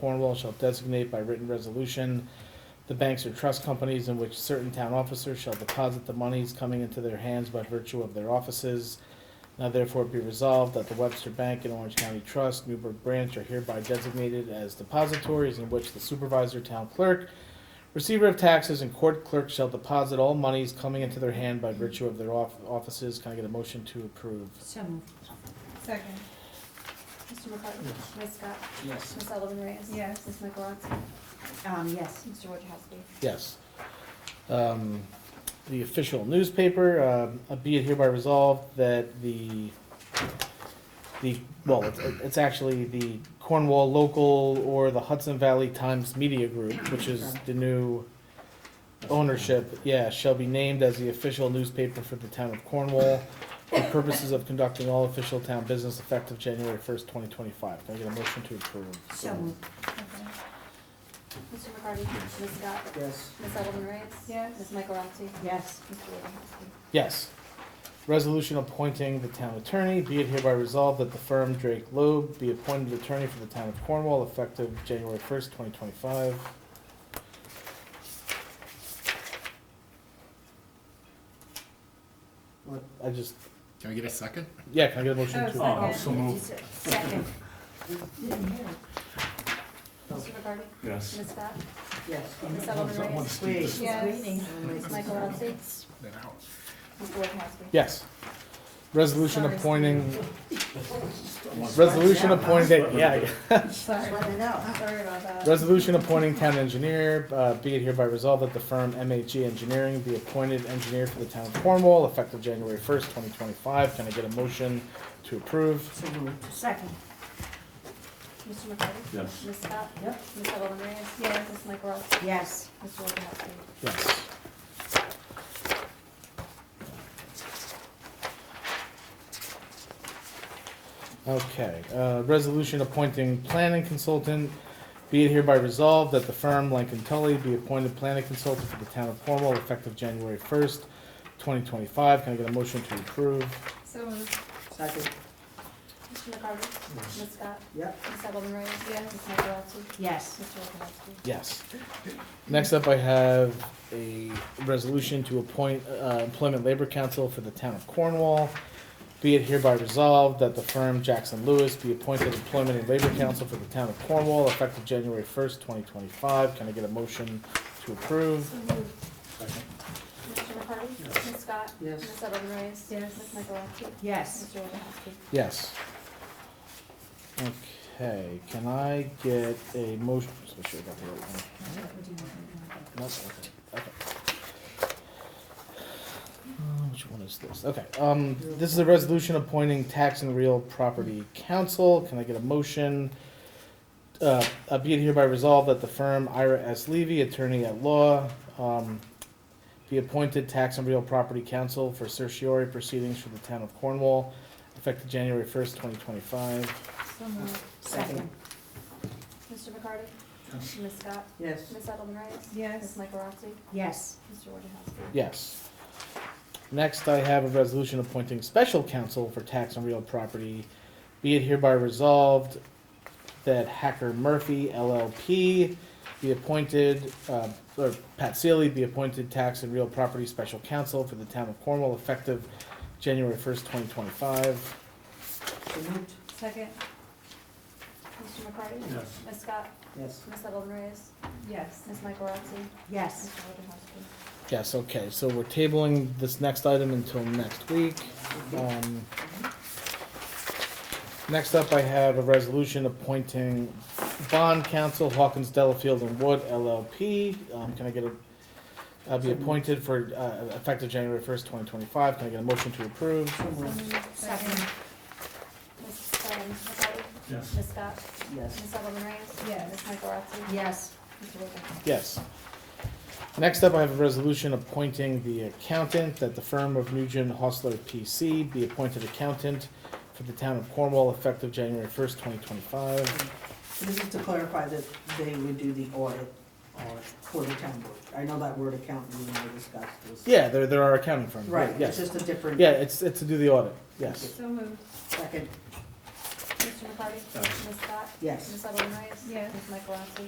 Cornwall shall designate by written resolution the banks or trust companies in which certain town officers shall deposit the monies coming into their hands by virtue of their offices. Now therefore be resolved that the Webster Bank and Orange County Trust, Newburgh Branch are hereby designated as depositories in which the supervisor, town clerk, receiver of taxes, and court clerk shall deposit all monies coming into their hand by virtue of their off- offices. Can I get a motion to approve? So moved. Second. Mr. McCartney? Yes. Ms. Scott? yes, Ms. Sullivan Reyes? Yes. Ms. Michaelotti? Um, yes. Mr. Wojciechowski? Yes. Um, The official newspaper, um, uh, be it hereby resolved that the, the, well, it's- it's actually the Cornwall Local or the Hudson Valley Times Media Group, which is the new ownership, yeah, shall be named as the official newspaper for the town of Cornwall for purposes of conducting all official town business effective January first, twenty twenty-five. Can I get a motion to approve? So moved. Second. Mr. McCartney? Ms. Scott? yes, Ms. Sullivan Reyes? Yes. Ms. Michaelotti? Yes. Mr. Wojciechowski? Yes. Resolution appointing the town attorney, be it hereby resolved that the firm Drake Loeb be appointed attorney for the town of Cornwall effective January first, twenty twenty-five. What? I just, Can I get a second? yeah, can I get a motion Oh, to? second. Oh, so moved. Second. Mr. McCartney? Yes. Ms. Scott? Yes. Ms. Sullivan Reyes? Wait, Yes. she's Yes. waiting. Ms. Michaelotti? Then I'll- Mr. Wojciechowski? Yes. Resolution Sorry. appointing, resolution appointing, yeah, Just Sorry. want to know. Sorry about Um, that. Resolution appointing town engineer, uh, be it hereby resolved that the firm MHE Engineering be appointed engineer for the town of Cornwall effective January first, twenty twenty-five. Can I get a motion to approve? So moved. Second. Mr. McCartney? Yes. Ms. Scott? Yep. Ms. Sullivan Reyes? Yes. Ms. Michaelotti? Yes. Mr. Wojciechowski? Yes. Okay, uh, resolution appointing planning consultant. Be it hereby resolved that the firm Lincoln Tully be appointed planning consultant for the town of Cornwall effective January first, twenty twenty-five. Can I get a motion to approve? So moved. Second. Mr. McCartney? Ms. Scott? Yep. Ms. Sullivan Reyes? Ms. Michaelotti? Yes. Mr. Wojciechowski? Yes. Next up, I have a resolution to appoint uh, Employment Labor Council for the town of Cornwall. Be it hereby resolved that the firm Jackson Lewis be appointed Employment and Labor Council for the town of Cornwall effective January first, twenty twenty-five. Can I get a motion to approve? So moved. Mr. McCartney? Ms. Scott? Yes. Ms. Sullivan Reyes? Yes. Ms. Michaelotti? Yes. Mr. Wojciechowski? Yes. Okay, can I get a motion? so I should have got the right one. Nope, okay, okay. Uh, Which one is this? Okay, um, this is a resolution appointing tax and real property counsel. Can I get a motion? Uh, uh, be it hereby resolved that the firm Ira S. Levy, attorney at law, um, be appointed tax and real property counsel for certiorari proceedings for the town of Cornwall, effective January first, twenty twenty-five. So moved. Second. Mr. McCarty? Yes. Ms. Scott? Yes. Ms. Edelman Reyes? Yes. Ms. Michaelozzi? Yes. Mr. Wojciechowski? Yes. Next, I have a resolution appointing special counsel for tax on real property. Be it hereby resolved that Hacker Murphy LLP be appointed, uh, or Pat Sealy be appointed tax and real property special counsel for the town of Cornwall effective January first, twenty twenty-five. So moved. Second. Mr. McCarty? Yes. Ms. Scott? Yes. Ms. Edelman Reyes? Yes. Ms. Michaelozzi? Yes. Mr. Wojciechowski? Yes, okay, so we're tabling this next item until next week. Um, Next up, I have a resolution appointing bond counsel Hawkins Delafield and Wood LLP. Um, Can I get a, I'll be appointed for, uh, effective January first, twenty twenty-five. Can I get a motion to approve? So So moved. moved. Second. Ms. um, McCarty? Yes. Ms. Scott? Yes. Ms. Edelman Reyes? Yes. Ms. Michaelozzi? Yes. Mr. Wojciechowski? Yes. Next up, I have a resolution appointing the accountant that the firm of Nugent Hostler PC be appointed accountant for the town of Cornwall effective January first, twenty twenty-five. So This is to clarify that they would do the audit uh, for the town board. I know that word accountant, we never discussed this. Yeah, there, there are accounting firms. Right, it's Yes. just a different Yeah, it's, it's to do the audit, yes. So moved. second. Mr. McCarty? Aye. Ms. Scott? Yes. Ms. Edelman Reyes? Yes. Ms. Michael Rotzi?